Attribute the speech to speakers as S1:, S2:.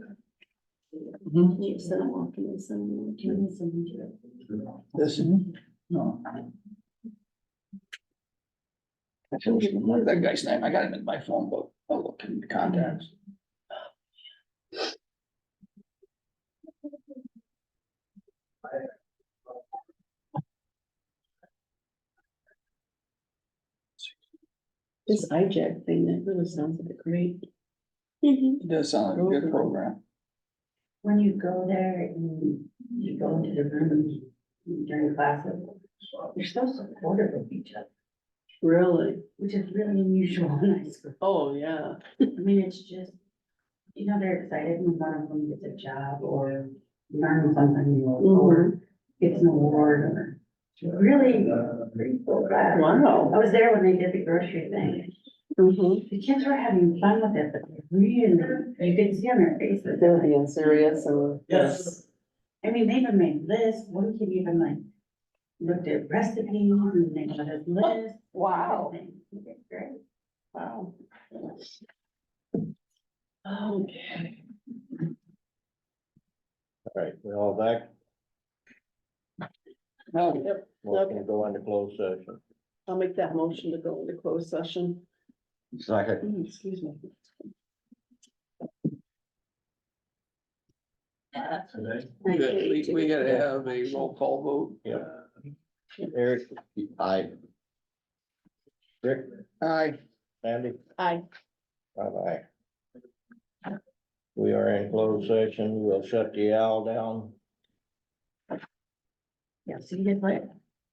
S1: Mhm.
S2: You said walking and some walking and some.
S1: This, no. I feel like, what is that guy's name? I got him in my phone book. I'll look in the contacts.
S2: This IJAC thing, that really sounds like a great.
S1: It does sound like a good program.
S3: When you go there and you go into the room during classes, you're so supportive of each other,
S2: Really?
S3: which is really unusual in high school.
S2: Oh, yeah.
S3: I mean, it's just, you know, they're excited when one of them gets a job or learns something new or gets an award or it's really grateful. I
S2: Wow.
S3: was there when they did the grocery thing.
S2: Mm-hmm.
S3: The kids were having fun with it, but they really, you could see on their faces.
S2: They're being serious and.
S1: Yes.
S3: I mean, they even made lists, one kid even like looked at recipes and they got his list.
S2: Wow.
S3: everything. He did great.
S2: Wow. Okay.
S4: All right, we all back,
S1: No,
S2: Yep,
S4: we're
S2: Oh, Okay.
S4: gonna go into closed session.
S2: I'll make that motion to go into closed session.
S4: Second.
S2: Mm, Excuse me.
S1: good. We, we gotta have a roll call vote.
S4: Yeah. Eric, I. Rick,
S1: Aye.
S4: Sandy,
S2: Aye.
S4: bye bye. We are in closed session, we'll shut the owl down.
S3: Yeah, so you did like.